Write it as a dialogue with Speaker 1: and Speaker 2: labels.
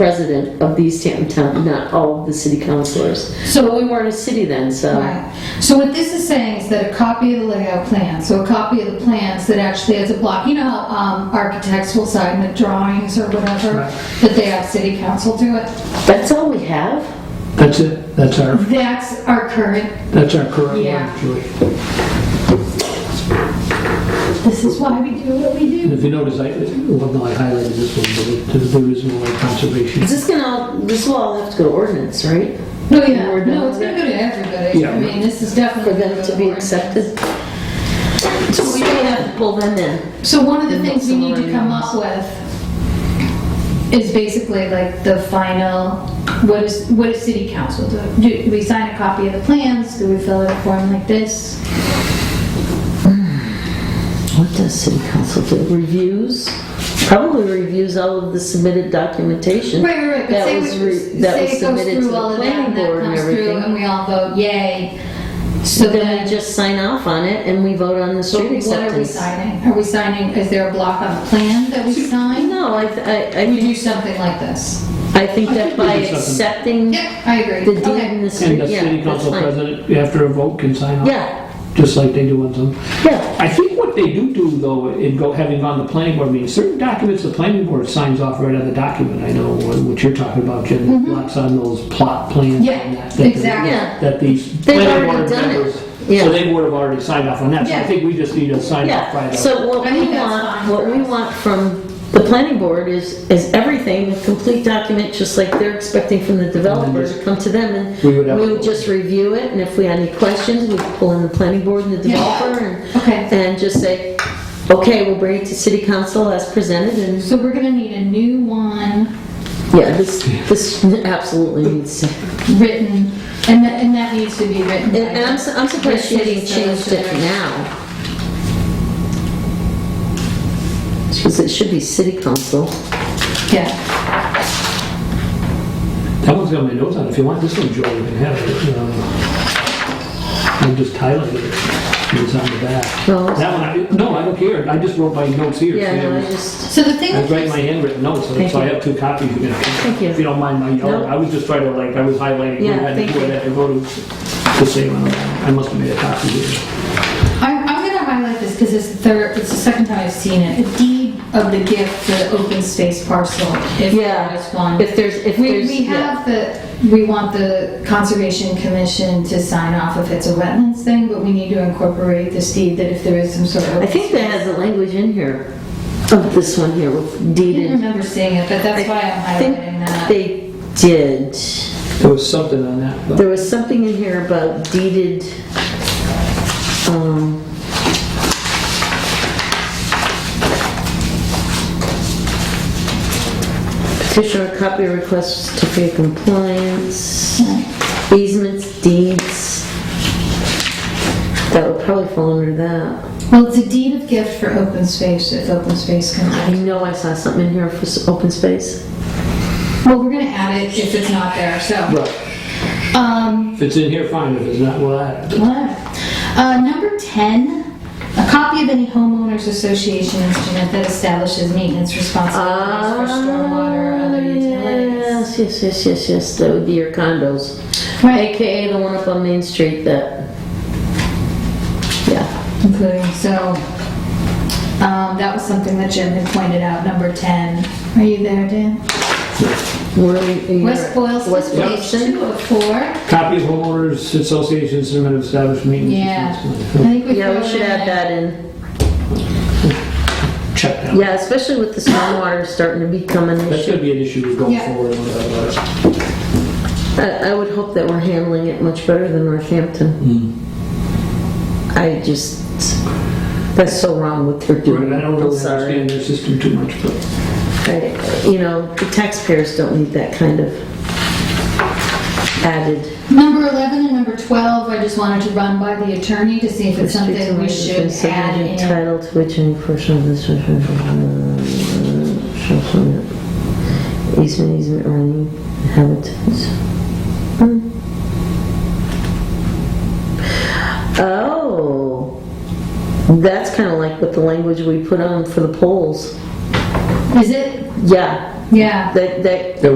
Speaker 1: president of the East Hampton Town, not all of the city councilors.
Speaker 2: So-
Speaker 1: So we weren't a city then, so.
Speaker 2: Right. So what this is saying is that a copy of the layout plan, so a copy of the plans that actually has a block, you know how um, architects will sign the drawings or whatever, that they have city council do it?
Speaker 1: That's all we have?
Speaker 3: That's it, that's our,
Speaker 2: That's our current,
Speaker 3: that's our current
Speaker 2: Yeah.
Speaker 3: one, Julie.
Speaker 2: this is why we do what we
Speaker 3: And
Speaker 2: do.
Speaker 3: if you notice, I, well, no, I highlighted this one, but there's the reason why conservation.
Speaker 1: Is this gonna, all- this will all have to go to ordinance, right?
Speaker 2: No, yeah,
Speaker 1: We're
Speaker 2: no,
Speaker 1: done.
Speaker 2: it's gonna go to everybody.
Speaker 3: Yeah.
Speaker 2: I mean, this is definitely.
Speaker 1: For them to be accepted? So we may have to pull them in.
Speaker 2: So one of the
Speaker 1: And not
Speaker 2: things we need to come up with is basically like the final, what is, what does city council do? Do we sign a copy of the plans? Do we fill out a form like this?
Speaker 1: What does city council do? Reviews? Probably reviews all of the submitted documentation.
Speaker 2: Right, right, right. But
Speaker 1: That
Speaker 2: say
Speaker 1: was
Speaker 2: we-
Speaker 1: re- that
Speaker 2: say
Speaker 1: was
Speaker 2: it goes
Speaker 1: submitted to
Speaker 2: through
Speaker 1: the
Speaker 2: all of that,
Speaker 1: planning
Speaker 2: and that
Speaker 1: board and
Speaker 2: comes through,
Speaker 1: everything.
Speaker 2: And we all vote yay.
Speaker 1: So then we just sign off on it and we vote on the
Speaker 2: So
Speaker 1: street
Speaker 2: What are we
Speaker 1: acceptance.
Speaker 2: signing? Are we signing, is there a block on the plan that we sign?
Speaker 1: No, I, th- I,
Speaker 2: We
Speaker 1: I,
Speaker 2: do something like this.
Speaker 1: I think
Speaker 3: I
Speaker 1: that
Speaker 3: think we
Speaker 1: by
Speaker 3: did something.
Speaker 1: accepting the
Speaker 2: Yep, I agree.
Speaker 1: deed
Speaker 2: Okay.
Speaker 1: in the
Speaker 3: And the
Speaker 1: street,
Speaker 3: city
Speaker 1: yeah, that's
Speaker 3: council
Speaker 1: fine.
Speaker 3: president, after a vote, can sign off.
Speaker 1: Yeah,
Speaker 3: Just like they do on some.
Speaker 1: yeah,
Speaker 3: I think what they do do, though, in go, having gone to planning board meetings, certain documents, the planning board signs off right on the document. I know what what you're talking about, Jen,
Speaker 1: Mm-hmm.
Speaker 3: the lots on those plot plans. and
Speaker 2: Yeah,
Speaker 3: that, that the-
Speaker 2: exactly.
Speaker 1: Yeah.
Speaker 3: That these
Speaker 1: They've
Speaker 3: planning
Speaker 1: already
Speaker 3: board
Speaker 1: done it.
Speaker 3: members,
Speaker 1: Yeah.
Speaker 3: so they would have already signed off on that. So I
Speaker 2: Yeah.
Speaker 3: think we just need to sign off by
Speaker 1: yeah.
Speaker 3: the.
Speaker 1: So what
Speaker 2: I
Speaker 1: we
Speaker 2: think that's
Speaker 1: want,
Speaker 2: fine
Speaker 1: what
Speaker 2: for
Speaker 1: we
Speaker 2: us.
Speaker 1: want from the planning board is, is everything, a complete document, just like they're expecting from the developer to come to them and
Speaker 3: We would have
Speaker 1: we
Speaker 3: to-
Speaker 1: would just review it and if we had any questions, we'd pull in the planning board and the
Speaker 2: Yeah.
Speaker 1: developer and,
Speaker 2: Okay.
Speaker 1: and just say, okay, we'll bring it to city council as presented and
Speaker 2: So we're gonna need a new one
Speaker 1: Yeah, this, this absolutely needs to,
Speaker 2: written, and that, and that needs to be written.
Speaker 1: and and I'm, su- I'm surprised she hasn't changed it now. Because it should be city council.
Speaker 2: Yeah,
Speaker 3: That one's got my notes on it. If you want this one, Joel, you can have it. Um, I'm just highlighting it. It's on the back.
Speaker 1: No.
Speaker 3: That one, I, no, I don't care. I just wrote my notes here.
Speaker 1: Yeah,
Speaker 3: so
Speaker 1: no, I
Speaker 3: was-
Speaker 1: just,
Speaker 2: so the thing
Speaker 3: I
Speaker 2: is,
Speaker 3: write my handwritten notes, so
Speaker 1: Thank
Speaker 3: so I
Speaker 1: you.
Speaker 3: have two copies. You can,
Speaker 1: Thank you.
Speaker 3: if you don't mind my yellow,
Speaker 1: No.
Speaker 3: I was just trying to like, I was highlighting.
Speaker 1: Yeah,
Speaker 3: who had
Speaker 1: thank
Speaker 3: who
Speaker 1: you.
Speaker 3: had I wrote it the same one. I must have made a copy here.
Speaker 2: I'm, I'm gonna highlight this because it's the third, it's the second time I've seen it, a deed of the gift, the open space parcel, if
Speaker 1: Yeah.
Speaker 2: there is one.
Speaker 1: if there's, if
Speaker 2: We,
Speaker 1: there's.
Speaker 2: we
Speaker 1: yeah.
Speaker 2: have the, we want the Conservation Commission to sign off if it's a wetlands thing, but we need to incorporate this deed that if there is some sort of.
Speaker 1: I think that has the language in here, of this one here, with
Speaker 2: I didn't
Speaker 1: deeded.
Speaker 2: remember seeing it, but that's why I'm
Speaker 1: I think
Speaker 2: highlighting that.
Speaker 1: They did,
Speaker 3: There was something on that. but-
Speaker 1: there was something in here about deeded, um, Petitioner copy request certificate of compliance, easements, deeds. That would probably fall under that.
Speaker 2: Well, it's a deed of gift for open space, if open space comes
Speaker 1: I
Speaker 2: in.
Speaker 1: know I saw something in here for s- open space.
Speaker 2: Well, we're gonna add it if it's not there, so.
Speaker 3: Right.
Speaker 2: Um,
Speaker 3: If it's in here, fine. If it's not, well, I,
Speaker 2: what? Uh, number 10, a copy of any homeowners association instrument that establishes maintenance responsibilities
Speaker 1: Ah,
Speaker 2: for stormwater or other utilities.
Speaker 1: Yes, yes, yes, yes, yes, that would be your condos.
Speaker 2: Right,
Speaker 1: AKA the one up on Main Street that, yeah.
Speaker 2: including, so, um, that was something that Jim had pointed out, number 10. Are you there, Dan?
Speaker 1: Where are you-
Speaker 2: West
Speaker 1: West
Speaker 2: Boylston, page
Speaker 1: Boylston.
Speaker 2: 204.
Speaker 3: copy of homeowners association certificate of established maintenance.
Speaker 2: Yeah. I
Speaker 3: responsibility.
Speaker 2: think we
Speaker 1: Yeah, we
Speaker 2: throw
Speaker 1: should
Speaker 2: that
Speaker 1: add
Speaker 2: in.
Speaker 1: that in.
Speaker 3: Check that.
Speaker 1: Yeah, especially with the stormwater starting to become an
Speaker 3: That's
Speaker 1: issue.
Speaker 3: gonna be an issue going
Speaker 2: Yeah.
Speaker 3: forward. no doubt about it.
Speaker 1: I, I would hope that we're handling it much better than Northampton.
Speaker 3: Hmm.
Speaker 1: I just, that's so wrong what they're doing.
Speaker 3: Right, I don't
Speaker 1: I'm
Speaker 3: really
Speaker 1: sorry.
Speaker 3: understand their system too much, but
Speaker 1: I- You know, the taxpayers don't need that kind of added.
Speaker 2: Number 11 and number 12, I just wanted to run by the attorney to see if it's
Speaker 1: restricted
Speaker 2: something we
Speaker 1: language
Speaker 2: should
Speaker 1: and
Speaker 2: add
Speaker 1: subdivision
Speaker 2: in.
Speaker 1: Title to which any portion of this shall uh, shall permit easement, easement or any inhabitants. Hmm. Oh, that's kind of like what the language we put on for the polls.
Speaker 2: Is it?
Speaker 1: Yeah,
Speaker 2: Yeah.
Speaker 1: that, that